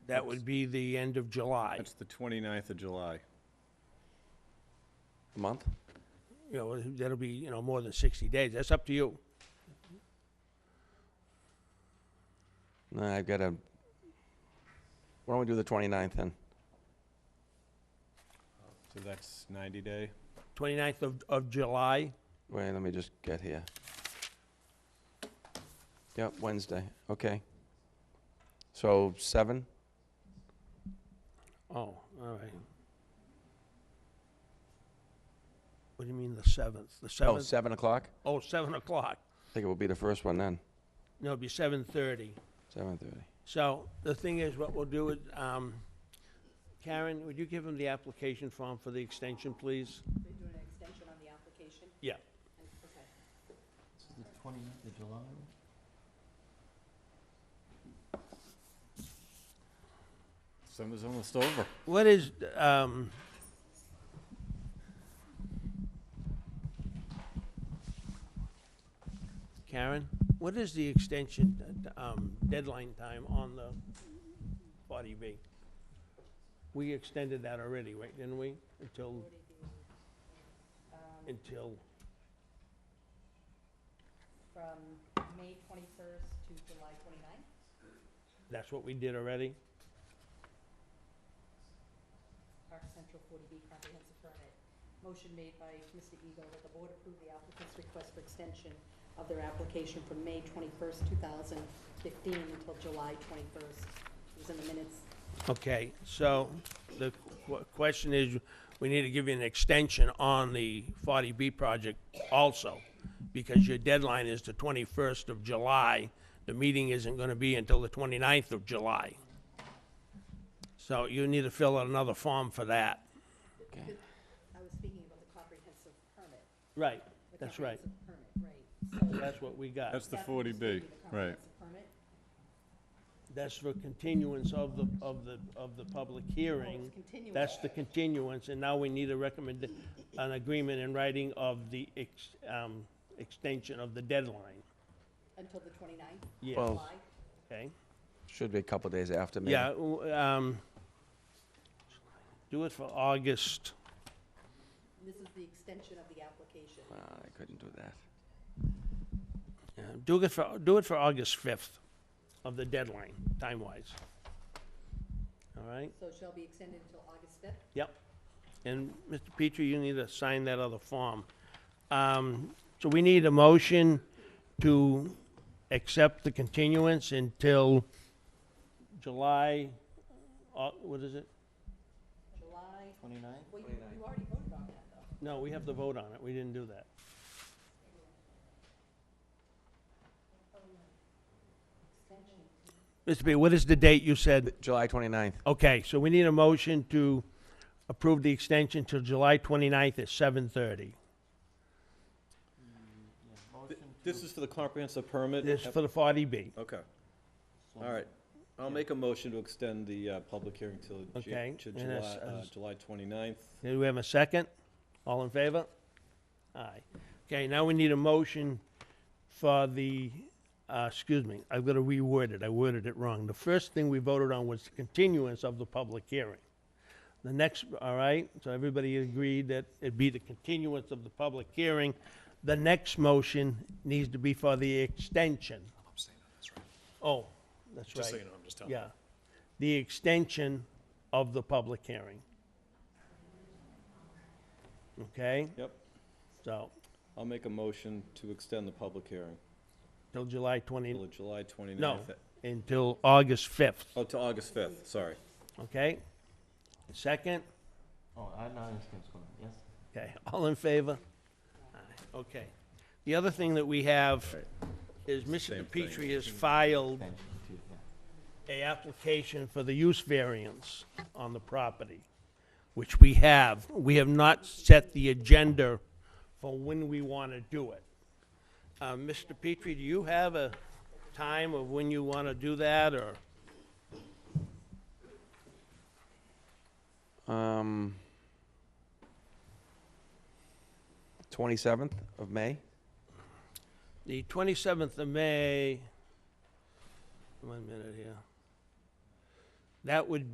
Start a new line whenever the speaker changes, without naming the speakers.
That would be the end of July.
That's the 29th of July.
A month?
You know, that'll be, you know, more than 60 days. That's up to you.
No, I've got a. Why don't we do the 29th then?
So that's 90 day.
29th of, of July,
Wait, let me just get here. Yep, Wednesday. Okay. So seven.
oh, all right. What do you mean the 7th? The
Oh,
7th?
seven o'clock.
Oh, 7 o'clock.
I think it will be the first one then.
No, it'll be 7:30.
Seven thirty.
So the thing is, what we'll do is, um, Karen, would you give him the application form for the extension, please?
They're doing an extension on the application?
Yeah.
And- Okay.
This is the 29th of July.
Summer's almost over.
Uh,
What is, um, Karen, what is the extension, um, deadline time on the 40B? We extended that already, right, didn't we? Until, until,
From May 21st to July 29th?
that's what we did already?
Park Central 40B comprehensive permit. Motion made by Mr. Eagle that the board approve the applicant's request for extension of their application from May 21st, 2015 until July 21st. It was in the minutes.
Okay, so the qu- question is, we need to give you an extension on the 40B project also, because your deadline is the 21st of July. The meeting isn't going to be until the 29th of July. So you need to fill out another form for that.
Okay.
I was speaking about the comprehensive permit.
Right,
The
that's right.
comprehensive Permit, right. So
That's what we got.
That's the
that would still
40B,
be the
right.
comprehensive permit.
That's for continuance of the, of the, of the public
Oh,
hearing.
it's continuing.
That's the continuance, and now we need a recommend, an agreement in writing of the ex, um, extension of the deadline.
Until the 29th?
Yeah.
Oh.
Well-
July?
Okay?
Should be a couple days after maybe.
Yeah, w- um, do it for August,
This is the extension of the application.
Ah, I couldn't do that.
yeah, do it for, do it for August fifth of the deadline, time-wise. All right?
So it shall be extended until August fifth?
Yep. And Mr. Petrie, you need to sign that other form. Um, So we need a motion to accept the continuance until July, au- what is it?
July,
29th?
well, you, you already voted on that, though.
No, we have the vote on it. We didn't do that.
Extension.
Mr. B, what is the date you said?
July 29th.
Okay, so we need a motion to approve the extension till July 29th at 7:30.
Yeah, motion
This
to-
is for the comprehensive permit?
This is for the 40B,
Okay,
so-
all right. I'll make a motion to extend the uh, public hearing till Ju-
Okay,
to
and
July
that's-
uh,
that's-
July 29th.
Do we have a second? All in favor? Aye. Okay, now we need a motion for the, uh, excuse me, I've got to reword it, I worded it wrong. The first thing we voted on was the continuance of the public hearing. The next, all right, so everybody agreed that it'd be the continuance of the public hearing. The next motion needs to be for the extension. Oh, that's right.
Just so you know, I'm just telling you.
Yeah. The extension of the public hearing. Okay,
Yep,
so,
I'll make a motion to extend the public hearing
till July
till
20,
July 29th.
no, until August 5th,
Oh, to August 5th, sorry.
okay? Second,
Oh, I know, this keeps going, yes.
okay, all in favor? Aye, Okay. The other thing that we have
Right.
is Mr.
Same thing.
Petrie has filed
Thank you, too, yeah.
a application for the use variance on the property, which we have. We have not set the agenda for when we want to do it. Uh, Mr. Petrie, do you have a time of when you want to do that, or?
Um, 27th of May.
The 27th of May, one minute here. That would